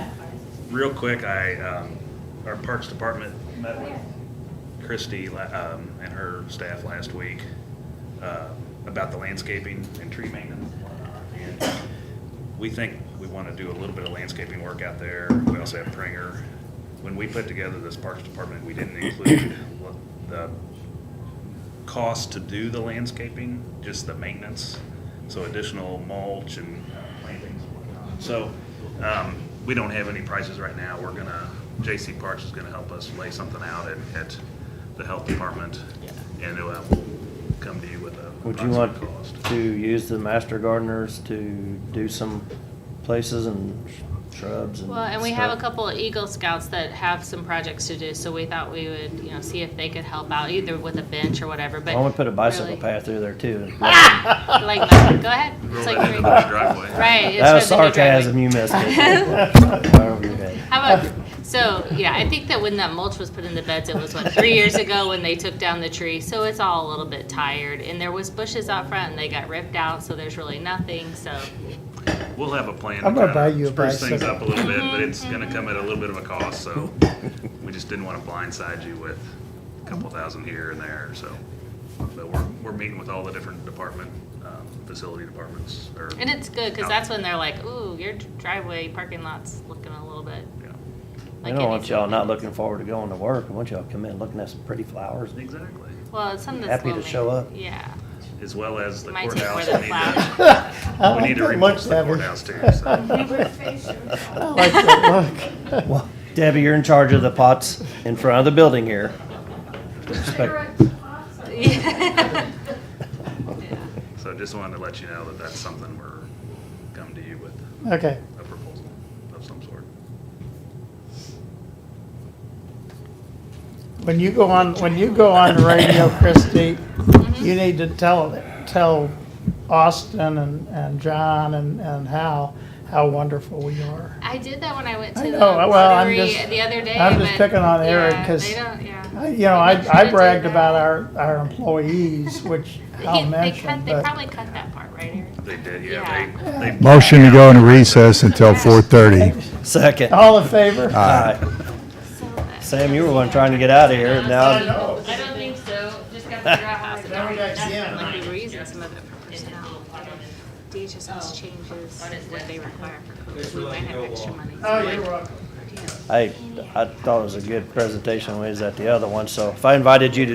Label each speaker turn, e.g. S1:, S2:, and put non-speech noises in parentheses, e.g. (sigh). S1: real quick, I, um, our Parks Department met with Christie, la- um, and her staff last week, uh, about the landscaping and tree maintenance. and whatnot. And We think we wanna do a little bit of landscaping work out there. We also have Pringer. When we put together this Parks Department, we didn't include what the cost to do the landscaping, just the maintenance, so additional mulch and uh, plantings and whatnot. So, um, we don't have any prices right now, we're gonna, J.C. Parks is gonna help us lay something out at, at the health department. And uh, we'll come to you with a
S2: Would you like
S1: approximate cost.
S2: to use the master gardeners to do some places and sh- shrubs and
S3: Well, and we have a
S2: stuff?
S3: couple of Eagle Scouts that have some projects to do, so we thought we would, you know, see if they could help out either with a bench or whatever, but.
S2: Why don't we put a bicycle
S3: really-
S2: path through there too?
S3: (laughs) Like, go ahead.
S1: Roll
S3: It's
S1: that
S3: like three-
S1: into the driveway.
S3: Right. it's
S2: That was
S3: for the new driveway.
S2: sarcasm, you missed
S3: (laughs)
S2: (laughs) it. Right over your (laughs) head.
S3: How about, so, yeah, I think that when that mulch was put in the beds, it was what, three years ago when they took down the tree, so it's all a little bit tired. And there was bushes out front and they got ripped out, so there's really nothing, so,
S1: We'll have a plan.
S4: I'm
S1: to kinda
S4: gonna buy you a
S1: Spruce things
S4: bicycle.
S1: up a little bit,
S3: (laughs)
S1: but it's gonna come at a little bit of a cost, so we just didn't wanna blindside you with a couple thousand here and there, so. But we're, we're meeting with all the different department, um, facility departments, or.
S3: and it's good, cause that's when they're like, ooh, your driveway parking lot's looking a little bit
S1: Yeah,
S2: We
S3: like.
S2: don't
S3: it
S2: want
S3: needs
S2: y'all not
S3: maintenance.
S2: looking forward to going to work. We want y'all to come in looking at some pretty flowers. (laughs)
S1: Exactly,
S3: Well, it's something that's.
S2: Happy to
S3: low
S2: show
S3: main-
S2: up.
S3: Yeah. (laughs)
S1: as well as the
S3: Might take more
S1: courthouse,
S3: than
S1: we need
S4: (laughs)
S3: flowers.
S1: to, we need to
S4: I like that lunch
S1: remodel the
S3: (laughs)
S1: courthouse
S4: savage.
S1: too,
S4: (laughs)
S1: so.
S4: I like that look.
S2: Well, Debbie, you're in charge of the pots in front of the building here. Respect-
S1: So just wanted to let you know that that's something we're coming to you with,
S4: Okay,
S1: a proposal of some sort.
S4: when you go on, when you go on
S3: (coughs)
S4: the radio, Christie,
S3: Mm-hmm.
S4: you need to tell, tell Austin and, and John and, and Hal how wonderful we are.
S3: I did that when I went to
S4: I
S3: the
S4: know, well, I'm
S3: brewery
S4: just-
S3: the other day.
S4: I'm just
S3: but-
S4: picking on Eric
S3: yeah,
S4: 'cause
S3: they don't- yeah.
S4: I- You know,
S3: I'm
S4: I,
S3: not sure
S4: I
S3: did
S4: bragged
S3: that.
S4: about our, our employees, which
S3: (laughs) They-
S4: Hal
S3: They cut,
S4: mentioned,
S3: they
S4: but
S3: probably cut that part, right, Eric?
S1: They did, yeah, they, they
S5: Motion to go into recess until 4:30.
S2: Second.
S4: all in favor?
S2: Aye.
S3: So uh, bad.
S2: Uh, Sam, you were one trying to get out of here and now,
S4: know.
S3: I don't think so, just gotta figure out how to.
S4: Now we got Sam.
S3: Like, we were using some of it for personnel, but if DHS changes Oh. what they require for COVID, we might have extra money.
S4: Oh, you're welcome.
S2: I, I thought it was a good presentation when we was at the other one. So if I invited you to